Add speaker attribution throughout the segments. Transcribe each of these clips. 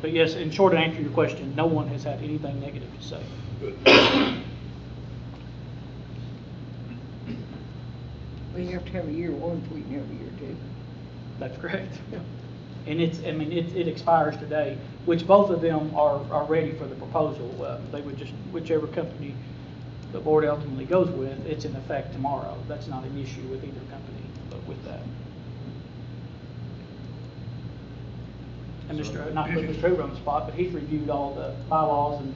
Speaker 1: But yes, in short answer to your question, no one has had anything negative to say.
Speaker 2: Well, you have to have a year one before you can have a year two.
Speaker 1: That's correct. And it's, I mean, it, it expires today, which both of them are, are ready for the proposal. Uh, They would just, whichever company the board ultimately goes with, it's in effect tomorrow. That's not an issue with either company, but with that. And Mr., not put Mr. Hoover on the spot, but he's reviewed all the bylaws and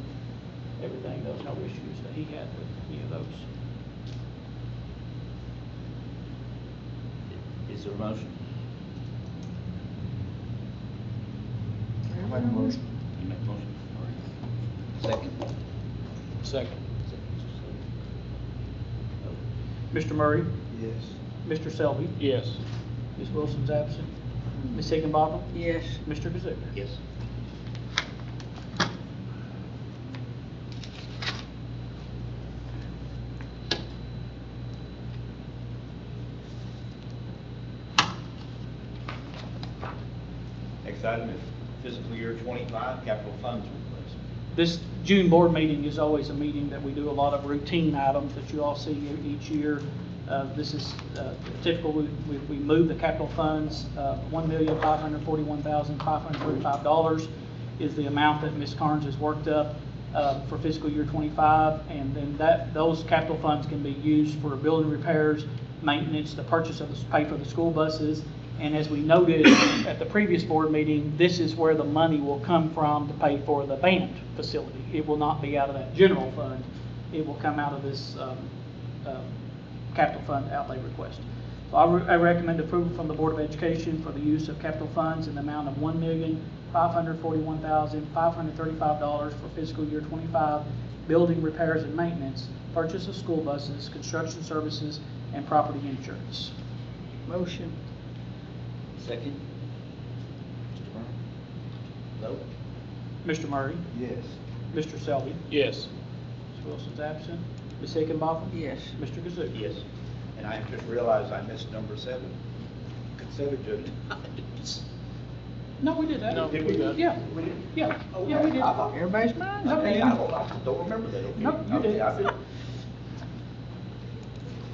Speaker 1: everything, There was no issues that he had with any of those.
Speaker 3: Is there a motion?
Speaker 2: Make a motion.
Speaker 3: You make a motion. All right. Second?
Speaker 4: Second.
Speaker 1: Mr. Murray,
Speaker 4: Yes.
Speaker 1: Mr. Selby,
Speaker 4: Yes.
Speaker 1: Ms. Wilson's absent, Ms. Higginbotham,
Speaker 2: Yes,
Speaker 1: Mr. Kazook.
Speaker 3: Yes. Next item is fiscal year twenty-five capital funds request.
Speaker 1: This June board meeting is always a meeting that we do a lot of routine items that you all see e- each year. Uh, This is uh, typical, we, we- we move the capital funds, uh, $1,541,535 is the amount that Ms. Carnes has worked up uh, for fiscal year '25, and then that, those capital funds can be used for building repairs, maintenance, the purchase of, the pay for the school buses, and as we noted at the previous board meeting, this is where the money will come from to pay for the band facility. It will not be out of that general fund. It will come out of this um, um, capital fund outlay request. So I re- I recommend approval from the Board of Education for the use of capital funds in the amount of $1,541,535 for fiscal year '25, building repairs and maintenance, purchase of school buses, construction services, and property insurance.
Speaker 2: motion.
Speaker 3: Second? Mr. Brown? Vote?
Speaker 1: Mr. Murray?
Speaker 4: Yes.
Speaker 1: Mr. Selby?
Speaker 4: Yes.
Speaker 1: Ms. Wilson's absent. Ms. Higginbotham?
Speaker 2: Yes,
Speaker 1: Mr. Kazook?
Speaker 3: Yes. And I just realized I missed number seven. Consider to.
Speaker 1: No, we did that.
Speaker 4: No, we did.
Speaker 1: Yeah,
Speaker 3: We did?
Speaker 1: yeah,
Speaker 3: Oh,
Speaker 1: yeah, we
Speaker 3: I
Speaker 1: did.
Speaker 3: thought-
Speaker 2: everybody's mine.
Speaker 3: Okay, I don't, I don't remember that, okay?
Speaker 1: No, you did.
Speaker 3: Okay, I did.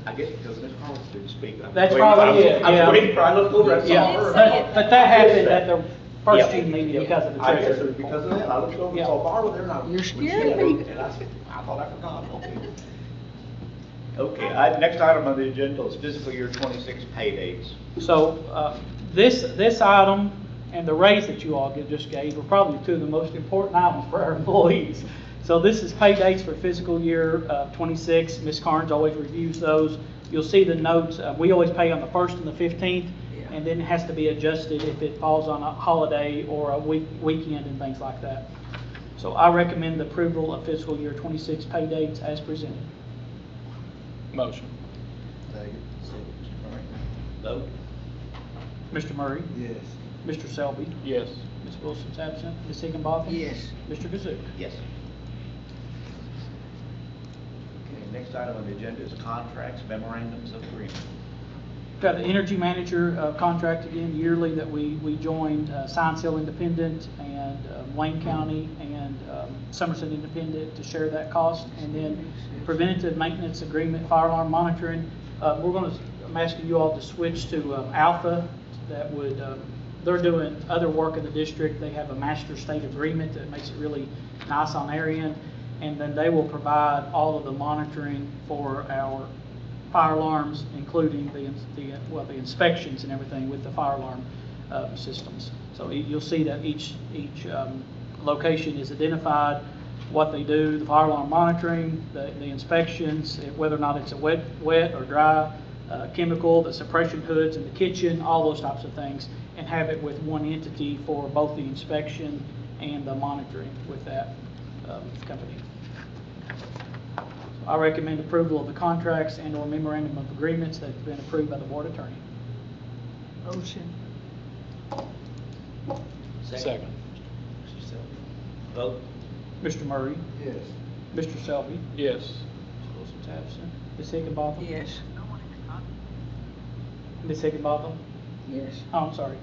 Speaker 3: I guess because Ms. Collins didn't speak. I was
Speaker 1: That's
Speaker 3: waiting for- I
Speaker 1: probably
Speaker 3: was-
Speaker 1: it,
Speaker 3: I was
Speaker 1: yeah.
Speaker 3: waiting for, I looked over, I saw
Speaker 1: Yeah,
Speaker 3: her.
Speaker 1: that- but that happened at the first
Speaker 3: Yeah.
Speaker 1: June meeting
Speaker 3: Yeah.
Speaker 1: because of the
Speaker 3: I guess it
Speaker 1: treasurer.
Speaker 3: was because of that, I looked over,
Speaker 1: Yeah.
Speaker 3: saw Barbara there, and I.
Speaker 2: You're
Speaker 3: we
Speaker 2: scaring
Speaker 3: said,
Speaker 2: me.
Speaker 3: And I said, I thought I forgot, okay. Okay, I, next item on the agenda is fiscal year twenty-six pay dates.
Speaker 1: So, uh, this, this item and the raise that you all get- just gave are probably two of the most important items for our employees. So this is pay dates for fiscal year uh, '26. Ms. Carnes always reviews those. You'll see the notes, uh, we always pay on the 1st and the 15th,
Speaker 2: Yeah.
Speaker 1: and then it has to be adjusted if it falls on a holiday or a week, weekend and things like that. So I recommend the approval of fiscal year '26 pay dates as presented.
Speaker 4: Motion.
Speaker 3: Second. All right. Vote?
Speaker 1: Mr. Murray?
Speaker 4: Yes.
Speaker 1: Mr. Selby?
Speaker 4: Yes.
Speaker 1: Ms. Wilson's absent. Ms. Higginbotham?
Speaker 2: Yes,
Speaker 1: Mr. Kazook.
Speaker 3: Yes. Okay, next item on the agenda is contracts, memorandums of agreement.
Speaker 1: Got the energy manager uh, contract again yearly that we, we joined uh, Science Hill Independent and uh, Wayne County and um, Somerset Independent to share that cost. And then preventative maintenance agreement, fire alarm monitoring. Uh, We're going to, I'm asking you all to switch to um, Alpha that would, um, they're doing other work in the district. They have a master state agreement that makes it really nice on their end. And then they will provide all of the monitoring for our fire alarms, including the, ins- the, uh, well, the inspections and everything with the fire alarm uh, systems. So y- you'll see that each, each um, location is identified, what they do, the fire alarm monitoring, the the inspections, eh, whether or not it's a wet, wet or dry uh, chemical, the suppression hoods in the kitchen, all those types of things, and have it with one entity for both the inspection and the monitoring with that um, company. I recommend approval of the contracts and/or memorandum of agreements that have been approved by the board attorney.
Speaker 2: motion.
Speaker 4: Second.
Speaker 3: Mr. Selby. Vote?
Speaker 1: Mr. Murray,
Speaker 4: Yes.
Speaker 1: Mr. Selby,
Speaker 4: Yes.
Speaker 1: Ms. Wilson's absent, Ms. Higginbotham.
Speaker 2: Yes,
Speaker 1: Ms. Higginbotham,
Speaker 2: yes.
Speaker 1: oh, I'm sorry,